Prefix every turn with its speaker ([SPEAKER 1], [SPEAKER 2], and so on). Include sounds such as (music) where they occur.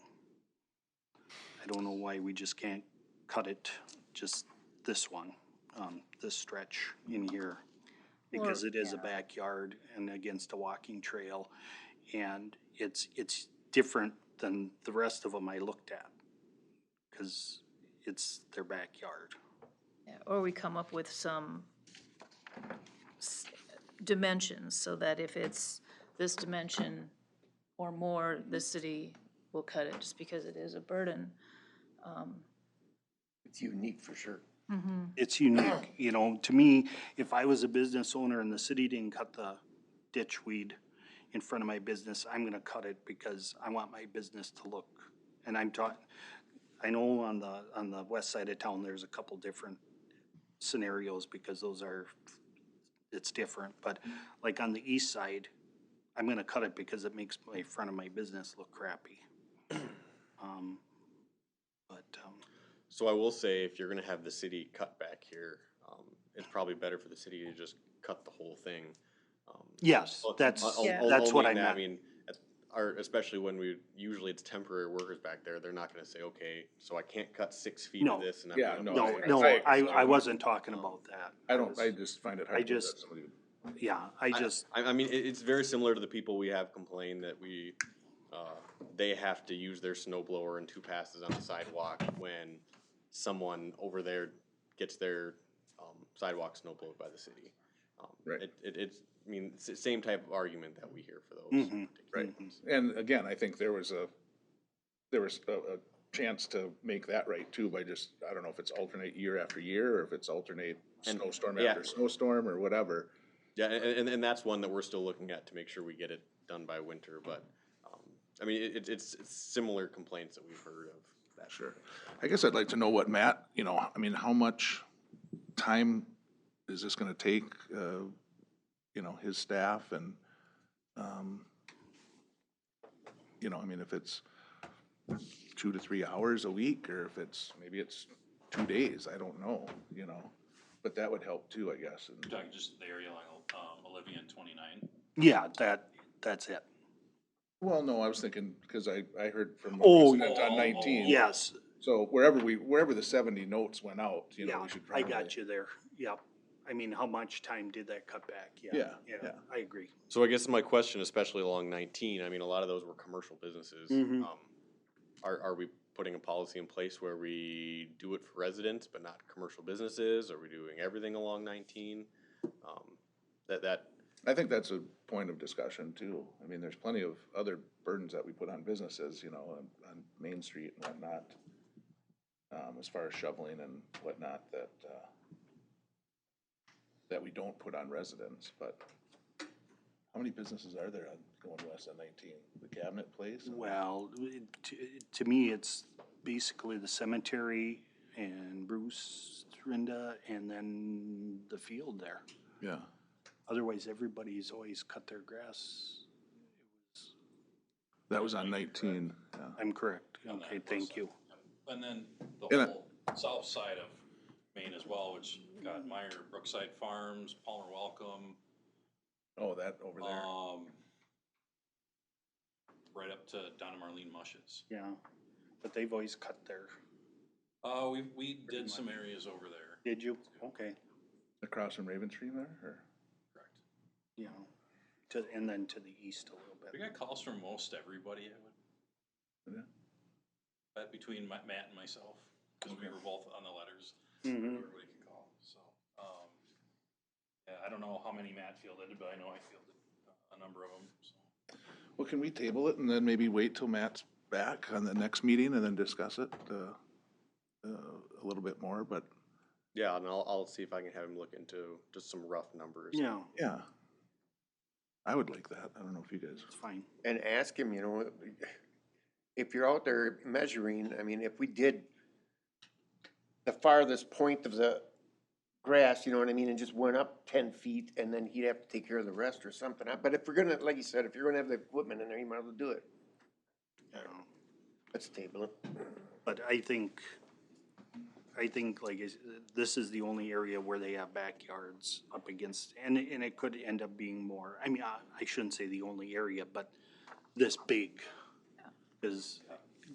[SPEAKER 1] I don't know why we just can't cut it, just this one, um, this stretch in here. Because
[SPEAKER 2] Or-
[SPEAKER 1] it is a backyard and against a walking trail, and it's, it's different than the rest of them I looked at. Cause it's their backyard.
[SPEAKER 2] Yeah, Or we come up with some s- dimensions, so that if it's this dimension or more, the city will cut it, just because it is a burden.
[SPEAKER 3] It's unique for sure.
[SPEAKER 1] it's unique, you know, to me, if I was a business owner and the city didn't cut the ditch weed in front of my business, I'm gonna cut it because I want my business to look. And I'm taught, I know on the, on the west side of town, there's a couple different scenarios because those are, it's different, but like on the east side, I'm gonna cut it because it makes my front of my business look crappy. (clears throat) Um, But, um,
[SPEAKER 4] So I will say, if you're gonna have the city cut back here, um, it's probably better for the city to just cut the whole thing. Um,
[SPEAKER 1] yes,
[SPEAKER 4] Well,
[SPEAKER 1] that's,
[SPEAKER 4] I'll- I'll-
[SPEAKER 2] Yeah.
[SPEAKER 4] I'll
[SPEAKER 1] that's what I
[SPEAKER 4] lean
[SPEAKER 1] meant.
[SPEAKER 4] that. I mean, at- our, especially when we, usually it's temporary workers back there, they're not gonna say, okay, so I can't cut six feet
[SPEAKER 1] No.
[SPEAKER 4] of this and I'm
[SPEAKER 3] Yeah,
[SPEAKER 4] gonna.
[SPEAKER 3] no,
[SPEAKER 4] buy
[SPEAKER 1] No,
[SPEAKER 4] it."
[SPEAKER 1] no,
[SPEAKER 3] I-
[SPEAKER 1] I, I wasn't talking about that.
[SPEAKER 3] I don't, I just find it hard
[SPEAKER 1] I
[SPEAKER 3] to believe
[SPEAKER 1] just-
[SPEAKER 3] that somebody would.
[SPEAKER 1] Yeah, I just,
[SPEAKER 4] I, I mean, it, it's very similar to the people we have complain that we, uh, they have to use their snow blower and two passes on the sidewalk when someone over there gets their, um, sidewalk snow blowed by the city. Um,
[SPEAKER 3] Right.
[SPEAKER 4] It, it, it's, I mean, it's the same type of argument that we hear for those.
[SPEAKER 1] Mhm,
[SPEAKER 4] particular
[SPEAKER 3] Mm-hmm. Right.
[SPEAKER 4] things.
[SPEAKER 3] And again, I think there was a, there was a, a chance to make that right too by just, I don't know if it's alternate year after year or if it's alternate
[SPEAKER 4] And-
[SPEAKER 3] snowstorm
[SPEAKER 4] yeah.
[SPEAKER 3] after snowstorm or whatever.
[SPEAKER 4] Yeah, and, and, and that's one that we're still looking at to make sure we get it done by winter, but, um, I mean, it, it's, it's similar complaints that we've heard of. that.
[SPEAKER 3] Sure. I guess I'd like to know what Matt, you know, I mean, how much time is this gonna take, uh, you know, his staff and, um, you know, I mean, if it's two to three hours a week, or if it's, maybe it's two days, I don't know, you know? But that would help too, I guess, and,
[SPEAKER 5] Talking just the area like um, Olivia and twenty-nine.
[SPEAKER 1] yeah, that, that's it.
[SPEAKER 3] well, no, I was thinking, because I, I heard from a
[SPEAKER 1] Oh,
[SPEAKER 3] resident on
[SPEAKER 5] oh,
[SPEAKER 3] nineteen.
[SPEAKER 1] Yes,
[SPEAKER 3] So wherever we, wherever the seventy notes went out, you know,
[SPEAKER 1] yeah,
[SPEAKER 3] we should
[SPEAKER 1] I
[SPEAKER 3] probably.
[SPEAKER 1] got you there, yep. I mean, how much time did that cut back? Yeah,
[SPEAKER 3] Yeah,
[SPEAKER 1] yeah,
[SPEAKER 3] yeah.
[SPEAKER 1] I agree.
[SPEAKER 4] So I guess my question, especially along nineteen, I mean, a lot of those were commercial businesses.
[SPEAKER 1] Mhm.
[SPEAKER 4] Um, Are, are we putting a policy in place where we do it for residents but not commercial businesses? Are we doing everything along nineteen? Um, That, that,
[SPEAKER 3] I think that's a point of discussion too. I mean, there's plenty of other burdens that we put on businesses, you know, on, on Main Street and whatnot. Um, as far as shoveling and whatnot that, uh, that we don't put on residents, but how many businesses are there on going west on nineteen? The Cabinet Place? and-
[SPEAKER 1] Well, it- to, to me, it's basically the cemetery and Bruce, Rinda, and then the field there.
[SPEAKER 3] Yeah.
[SPEAKER 1] Otherwise, everybody's always cut their grass.
[SPEAKER 3] That was on nineteen, yeah.
[SPEAKER 1] I'm correct,
[SPEAKER 5] On that
[SPEAKER 1] okay,
[SPEAKER 5] west
[SPEAKER 1] thank
[SPEAKER 5] side.
[SPEAKER 1] you.
[SPEAKER 5] And then
[SPEAKER 3] And
[SPEAKER 5] the
[SPEAKER 3] I-
[SPEAKER 5] whole south side of Maine as well, which got Meyer, Brookside Farms, Palmer Welcome,
[SPEAKER 3] Oh, that over there.
[SPEAKER 5] um, right up to Donna Marlene Mushes.
[SPEAKER 1] Yeah, but they've always cut their,
[SPEAKER 5] Uh, we, we
[SPEAKER 1] Pretty
[SPEAKER 5] did some
[SPEAKER 1] much.
[SPEAKER 5] areas over there,
[SPEAKER 1] did you? Okay.
[SPEAKER 3] Across from Raven Tree there or?
[SPEAKER 5] correct?
[SPEAKER 1] you know, to, and then to the east a little
[SPEAKER 5] We
[SPEAKER 1] bit.
[SPEAKER 5] got calls from most everybody, I would,
[SPEAKER 3] Yeah.
[SPEAKER 5] bet between my- Matt and myself, because we were both on the letters.
[SPEAKER 1] Mhm.
[SPEAKER 5] everybody can call, so, um, yeah, I don't know how many Matt fielded, but I know I fielded a number of them, so.
[SPEAKER 3] Well, can we table it and then maybe wait till Matt's back on the next meeting and then discuss it, uh, uh, a little bit more, but,
[SPEAKER 4] yeah, and I'll, I'll see if I can have him look into just some rough numbers.
[SPEAKER 1] Yeah,
[SPEAKER 3] yeah. I would like that. I don't know if you guys,
[SPEAKER 1] it's fine.
[SPEAKER 6] and ask him, you know, if you're out there measuring, I mean, if we did the farthest point of the grass, you know what I mean, and just went up ten feet, and then he'd have to take care of the rest or something. But if we're gonna, like you said, if you're gonna have the equipment in there, you might as well do it.
[SPEAKER 1] you know.
[SPEAKER 6] Let's table it.
[SPEAKER 1] But I think, I think like, is- this is the only area where they have backyards up against, and, and it could end up being more. I mean, I, I shouldn't say the only area, but this big. Cause